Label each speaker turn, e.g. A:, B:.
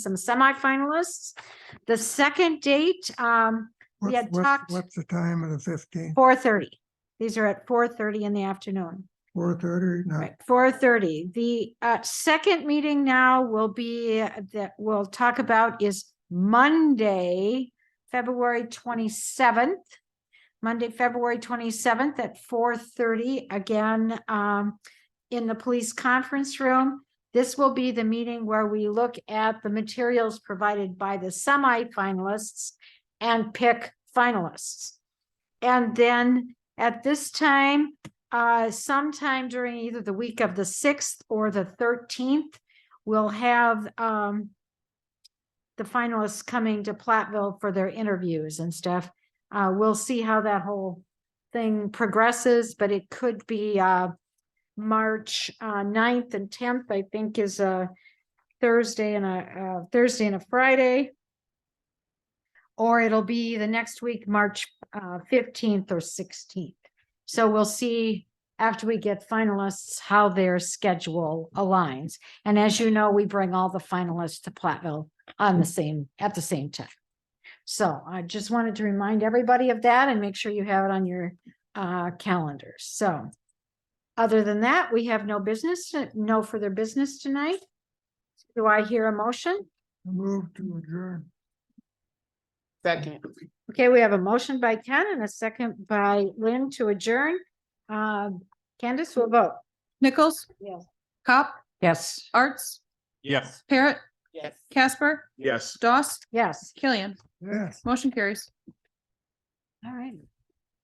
A: some semifinalists. The second date, um, We
B: What's-
A: had
B: what's-
A: talked-
B: What's the time of the fifteenth?
A: four thirty. These are at four thirty in the afternoon.
B: Four thirty? No,
A: Right, four thirty. The uh second meeting now will be uh, that we'll talk about is Monday, February twenty-seventh. Monday, February twenty-seventh at four thirty, again, um, in the police conference room. This will be the meeting where we look at the materials provided by the semifinalists and pick finalists. And then at this time, uh, sometime during either the week of the sixth or the thirteenth, we'll have, um, the finalists coming to Platteville for their interviews and stuff. Uh, we'll see how that whole thing progresses, but it could be, uh, March, uh, 9th and tenth, I think is a Thursday and a, uh, Thursday and a Friday. Or it'll be the next week, March, uh, fifteenth or sixteenth. So we'll see after we get finalists, how their schedule aligns. And as you know, we bring all the finalists to Platteville on the same, at the same time. So I just wanted to remind everybody of that and make sure you have it on your uh calendar. So other than that, we have no business, no further business tonight. Do I hear a motion?
B: move to adjourn.
C: Second.
A: Okay, we have a motion by Ken and a second by Lynn to adjourn. Uh, Candace will vote.
D: Nichols?
A: Yes.
D: Cop?
A: Yes.
D: Arts?
E: Yes.
D: Parrot?
C: Yes.
D: Casper?
E: Yes.
D: Doss?
A: Yes.
D: Killian?
B: Yes.
D: Motion carries.
A: All right.